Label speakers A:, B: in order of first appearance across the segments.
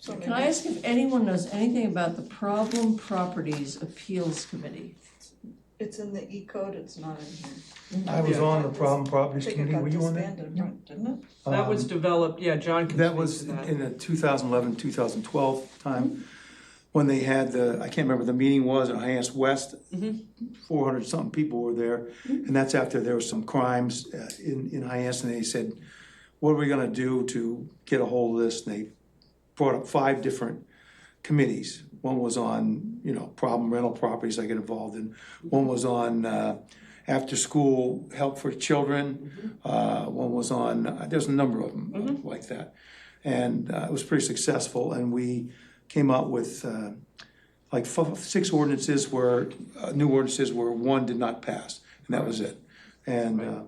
A: So can I ask if anyone knows anything about the Problem Properties Appeals Committee?
B: It's in the E code, it's not in here.
C: I was on the problem
B: I
C: properties
B: think it
C: committee,
B: got
C: were you on that?
B: disbanded, right, didn't it?
D: That was
C: Um,
D: developed, yeah, John can
C: That
D: speak
C: was
D: to that.
C: in the 2011, 2012 time, when they had the, I can't remember the meeting was, in Hyannis West. 400 something people were there, and that's after there was some crimes uh, in, in Hyannis, and they said, what are we gonna do to get a hold of this? And they brought up five different committees. One was on, you know, problem rental properties I get involved in. One was on uh, after-school help for children. Uh, One was on, uh, there's a number of them uh, like that. And uh, it was pretty successful, and we came out with uh, like f- six ordinances where, uh, new ordinances where one did not pass, and that was it. And uh,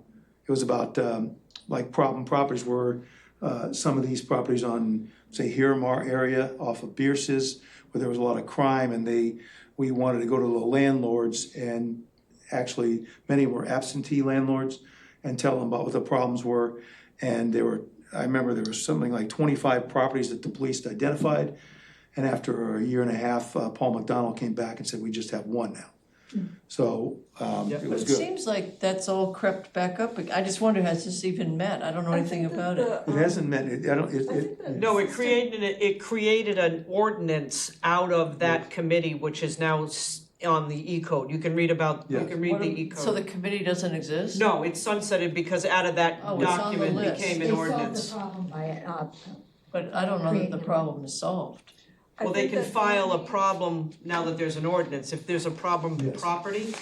C: it was about um, like problem properties were uh, some of these properties on, say, Miramar area off of Bierce's, where there was a lot of crime, and they, we wanted to go to the landlords, and actually, many were absentee landlords, and tell them about what the problems were. And there were, I remember there was something like twenty-five properties that the police identified, and after a year and a half, uh, Paul McDonald came back and said, we just have one now. So, um,
D: Yep.
C: it
A: But
C: was
A: it
C: good.
A: seems like that's all crept back up, I just wonder, has this even met? I don't know anything about it.
C: It
B: um,
C: hasn't meant, it, I don't, it,
B: I think
C: it,
B: that-
D: No, it created, a- it created an ordinance out of that committee, which is now s- on the E code. You can read about, you
C: Yes.
D: can read the E
A: So the
D: code.
A: committee doesn't exist?
D: No, it's sunsetted because out of that
A: Oh, it's on the
D: document
A: list.
D: became
E: They
D: an
E: solved
D: ordinance.
E: the problem by, uh,
A: But I don't know that the problem is solved.
B: I
D: Well, they
B: think
D: can
B: that-
D: file a problem now that there's an ordinance. If there's a problem
C: Yes.
D: property,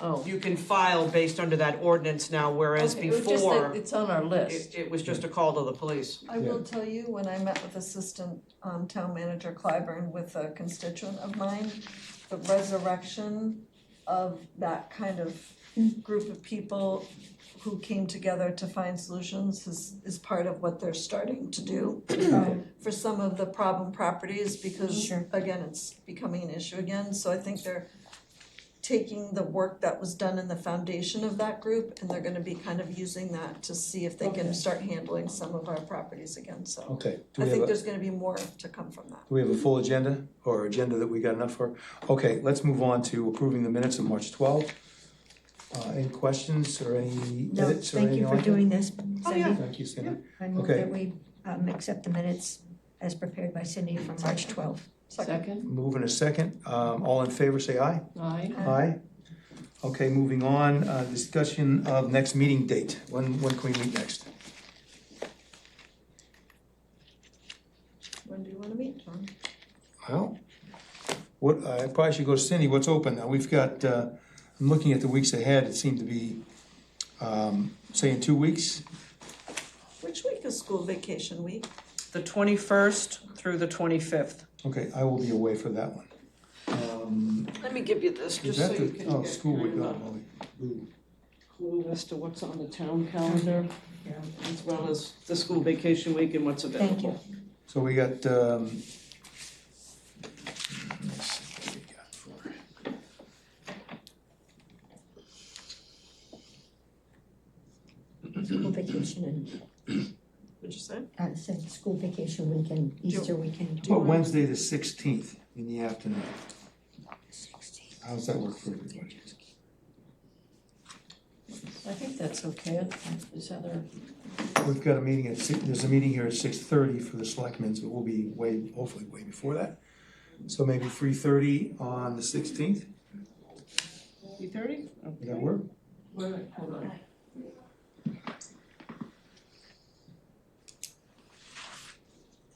A: Oh.
D: you can file based under that ordinance now, whereas
A: Okay, it was just that
D: before,
A: It's on our list.
D: it, it was just a call to the police.
B: I will tell you, when I met with Assistant um, Town Manager Clyburn with a constituent of mine, the resurrection of that kind of group of people who came together to find solutions is, is part of what they're starting to do for some of the problem properties, because again, it's becoming an issue again, so I think they're taking the work that was done in the foundation of that group, and they're gonna be kind of using that to see if they can start handling some of our properties again, so.
C: okay. Do
B: I
C: we have
B: think
C: a-
B: there's gonna be more to come from that.
C: Do we have a full agenda or agenda that we got enough for? Okay, let's move on to approving the minutes of March 12. Uh, Any questions or any
E: no,
C: edits or
E: thank
C: anything
E: you for
C: like that?
E: doing this. Cindy.
D: Oh, yeah.
C: Thank you, Cindy.
E: I move
C: Okay.
E: that we, um, accept the minutes as prepared by Cindy from March twelfth.
A: Second,
C: Move in a second. Um, All in favor, say aye.
A: aye.
C: Aye. Okay, moving on, uh, discussion of next meeting date. When, when can we meet next?
B: When do you wanna meet, John?
C: Well, what, I probably should go to Cindy, what's open now? We've got, uh, I'm looking at the weeks ahead, it seemed to be, um, say in two weeks?
B: Which week is school vacation week?
D: The twenty-first through the twenty-fifth.
C: Okay, I will be away for that one. Um,
D: Let me give you this,
C: is
D: just so
C: that
D: you
C: the,
D: can
C: oh,
D: get
C: school week,
D: kind
C: oh,
D: of a
C: holy, ooh,
D: clue as to what's on the town calendar, as well as the school vacation week and what's available.
E: Thank you.
C: so we got, um. let's see what we got for-
E: School vacation and,
D: What'd you say? Oh.
E: uh, said school vacation weekend, Easter weekend.
C: Well, Wednesday the sixteenth in the afternoon,
E: 16th.
C: how's that work for everybody?
A: I think that's okay, is Heather,
C: We've got a meeting at six, there's a meeting here at six thirty for the selectmen's, but we'll be way, hopefully way before that. So maybe three thirty on the sixteenth,
D: Three thirty?
C: does that work?
D: hold on.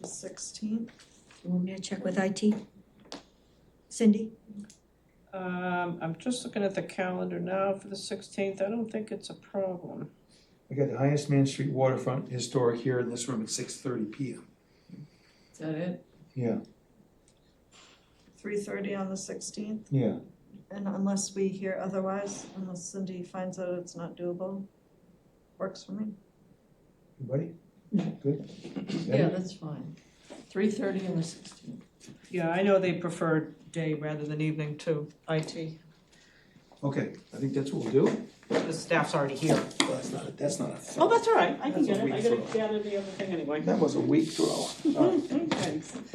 B: The sixteenth?
E: You want me to check with IT? Cindy?
F: Um, I'm just looking at the calendar now for the sixteenth, I don't think it's a problem.
C: We got the highest Man Street waterfront historic here in this room at six thirty P M.
A: is that it?
C: Yeah,
B: Three thirty on the sixteenth,
C: yeah.
B: and unless we hear otherwise, unless Cindy finds out it's not doable, works for me.
C: Everybody?
E: No.
C: Good?
A: Yeah, that's fine. Three thirty on the sixteenth.
D: Yeah, I know they prefer day rather than evening to IT.
C: Okay, I think that's what we'll do.
D: The staff's already here.
C: Well, That's not, a- that's not a.
D: Oh, that's all right, I can
C: That's a
D: get it, I
C: week
D: gotta
C: from-
D: gather the other thing anyway.
C: That was a weak throw. All right.
D: Thanks.